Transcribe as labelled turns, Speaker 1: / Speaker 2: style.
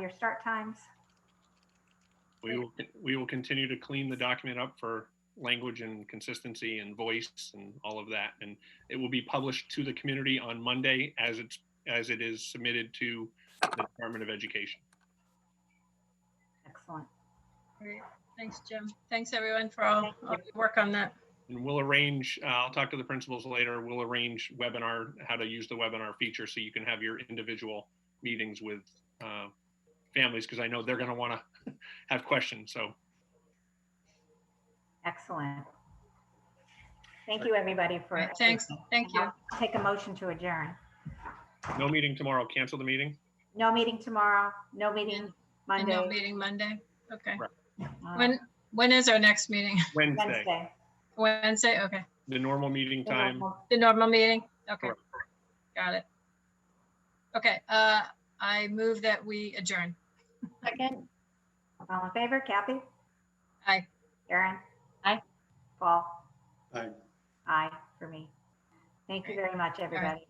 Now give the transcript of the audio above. Speaker 1: their start times.
Speaker 2: We will, we will continue to clean the document up for language and consistency and voice and all of that. And it will be published to the community on Monday as it's, as it is submitted to the Department of Education.
Speaker 1: Excellent.
Speaker 3: Great. Thanks, Jim. Thanks, everyone, for all all your work on that.
Speaker 2: And we'll arrange, uh, I'll talk to the principals later, we'll arrange webinar, how to use the webinar feature so you can have your individual meetings with uh, families, because I know they're going to want to have questions. So
Speaker 1: Excellent. Thank you, everybody, for.
Speaker 3: Right, thanks. Thank you.
Speaker 1: I'll Take a motion to adjourn.
Speaker 2: no meeting tomorrow, cancel the meeting.
Speaker 1: No meeting tomorrow, no meeting
Speaker 3: And no
Speaker 1: Monday.
Speaker 3: meeting Monday. Okay.
Speaker 1: uh,
Speaker 3: When, when is our next meeting?
Speaker 2: Wednesday,
Speaker 1: Wednesday.
Speaker 3: Wednesday? Okay.
Speaker 2: the normal meeting time.
Speaker 3: The normal meeting? Okay.
Speaker 2: Correct.
Speaker 3: Got it. Okay, uh, I move that we adjourn.
Speaker 1: Second. All in favor, Kathy?
Speaker 3: Aye.
Speaker 1: Erin?
Speaker 3: Aye.
Speaker 1: Paul?
Speaker 4: Aye.
Speaker 1: Aye, for me. Thank you
Speaker 3: Great.
Speaker 1: very much, everybody.